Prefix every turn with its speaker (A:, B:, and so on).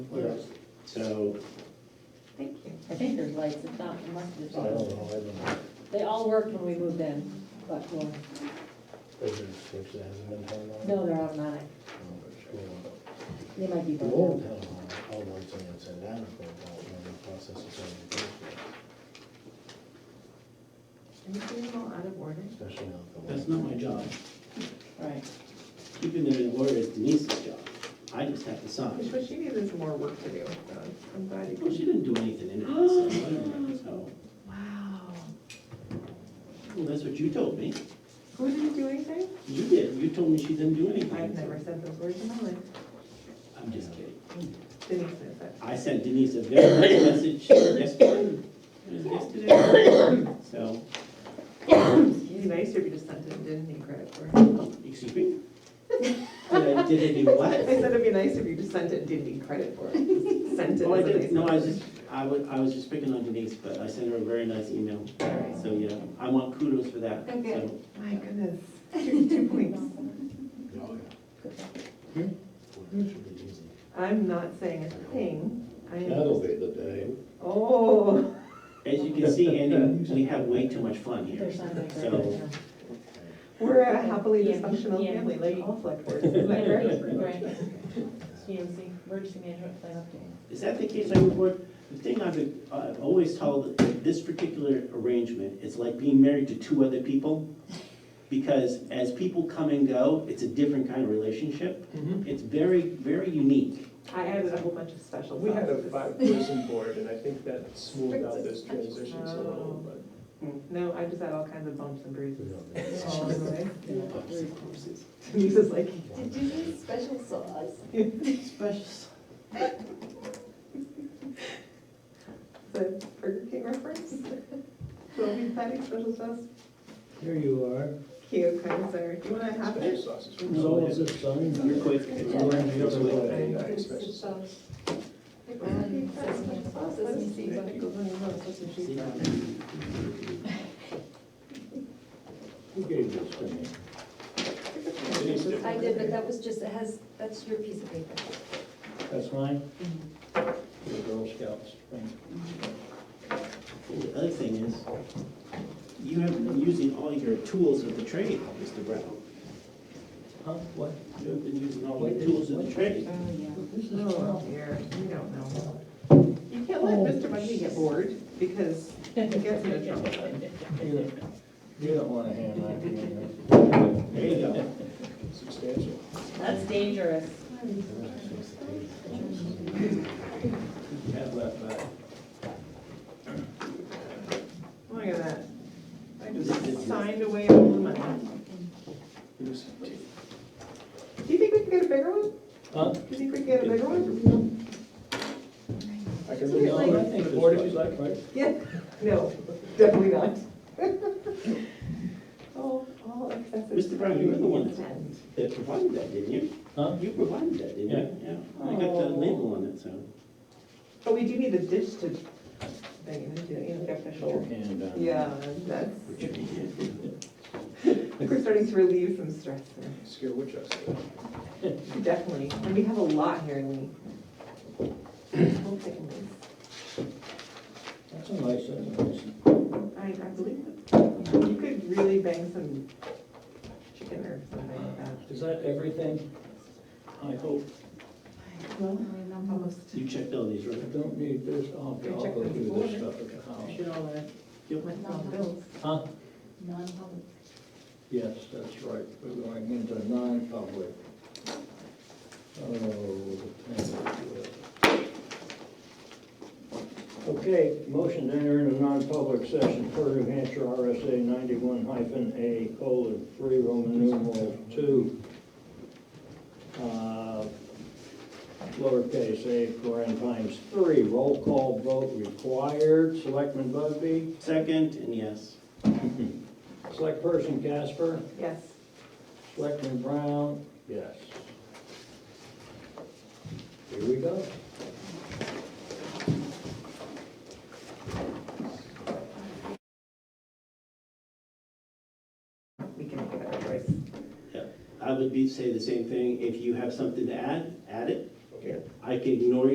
A: So,
B: Thank you.
C: I think there's lights, if not, there must be
A: I don't
C: something.
A: know, I don't know.
C: They all worked when we moved in, but, well,
A: Is there a switch that hasn't been turned on?
C: no, they're automatic,
A: Well,
C: they might be
A: The
C: broken.
A: old town hall, all lights on the outside, that was broke out when the process was starting to go through,
B: Are you doing all out of order?
A: especially now. that the
D: That's
A: light-
D: not my job.
C: Right,
D: Keeping them in order is Denise's job. I just have to
B: Because
D: sign.
B: what she needs is more work to do, so I'm glad you
D: Well, she
B: can.
D: didn't do anything in it, so whatever, so.
B: Wow.
D: Well, that's what you told me.
B: Who didn't do anything?
D: You did. You told me she didn't do anything.
B: I've never said those words in my life.
D: I'm just kidding.
B: Denise says that.
D: I sent Denise a very nice message yesterday. It was yesterday. So,
B: It'd be nicer if you just sent it and didn't need credit for it.
D: excuse me? Did I, did I do
B: I
D: what?
B: said it'd be nice if you just sent it and didn't need credit for it. Sent it.
D: Oh, I
B: as a
D: did,
B: nice
D: no, I was
B: message.
D: just, I was, I was just picking on Denise, but I sent her a very nice email. So, yeah, I want kudos for that. so.
B: Okay. My goodness, two, two points.
A: Oh, yeah. Well, it Hmm? should be easy.
B: I'm not saying a thing. I
E: That'll
B: am,
E: be the day.
B: oh,
D: As you can see, Andy, we have way too much fun here.
C: there's something like that.
D: So-
B: we're a happily
C: Yeah,
B: dysfunctional
C: yeah.
B: family, like all select boards.
C: Yeah,
B: Is that correct?
C: right, right. CMC, emergency management plan update.
D: Is that the case, I would work, the thing I've, I've always told, this particular arrangement, it's like being married to two other people. Because as people come and go, it's a different kind of relationship. It's very, very unique.
B: I added a whole bunch of special.
E: We had a
B: sauces.
E: five-person board, and I think that smoothed out those transitions a little, but.
B: No, I just had all kinds of bumps and
A: We
B: bruises.
A: don't know.
B: All the way.
C: Yeah.
B: Denise is like,
F: Did you need special sauce?
D: Special.
B: the Burger King reference. Will be patty special sauce.
G: Here you are.
B: Cute, kind of, sir. Do you want to have
E: Special
B: it?
E: sauces.
G: So is it signed?
D: You're quick.
G: the other way.
E: I- I expect-
F: Special sauce.
B: uh, Special sauce, let me see what goes on your nose, what's your cheese on?
E: Who gave this to me? Denise did.
F: I did, but that was just, it has, that's your piece of paper.
G: That's mine? The Girl Scouts thing.
D: And The other thing is, you have been using all your tools of the trade, Mr. Brown.
G: Huh, what?
D: You have been using all your tools of the trade.
C: Oh, yeah.
G: This is
B: Oh,
G: Trump.
B: dear, you don't know. You can't
F: Oh.
B: let Mr. Bundy get bored because he gets into trouble.
G: You don't- you don't want to hand that to me.
D: There you go.
E: Substantial.
C: That's dangerous.
G: Have that back.
B: Look at that. I just signed away all the money. Do you think we can get a bigger one?
G: Huh?
B: Do you think we can get a bigger one?
E: I can
B: Isn't it
E: read
G: No,
B: like-
G: I think
E: the
G: it's
E: board if you'd
G: fine.
E: like, Mike.
B: Yeah, no, definitely not. All, all excessive.
D: Mr. Brown, you were the one that-
B: Ten.
D: They provided that, didn't you?
G: Huh?
D: You provided that, didn't you? Yeah. I got the
B: Oh.
D: label on it, so.
B: But we do need a dish to, thing, and do, you know, the
G: Put your
B: official.
G: hand down.
B: Yeah, that's,
D: which we did.
B: we're starting to relieve some stress here.
E: Scare Winchester.
B: Definitely, and we have a lot here, Lee. Whole thing is-
G: That's a nice, that's a nice.
B: I, I believe it. You could really bang some chicken or something like that.
G: Is that everything? I hope.
B: Well, almost.
D: You checked all these, right?
G: I don't need this. I'll I'll
B: Go check
G: go
B: the
G: do
B: board.
G: this stuff at the house.
B: Should all that. Went on bills.
G: Huh?
F: Non-public.
G: Yes, that's right, we're going into non-public. Oh, the tenth. Okay, motion to enter into non-public session per New Hampshire RSA ninety-one hyphen A colon three, Roman numeral two. Uh, Lowercase a, paren times three, roll call vote required, Selectman Bugby,
D: Second, and yes.
G: Select Person Casper.
B: Yes.
G: Selectman Brown? Yes. Here we go.
B: We can make a better choice.
D: I would be, say the same thing. If you have something to add, add it.
E: Okay.
D: I can ignore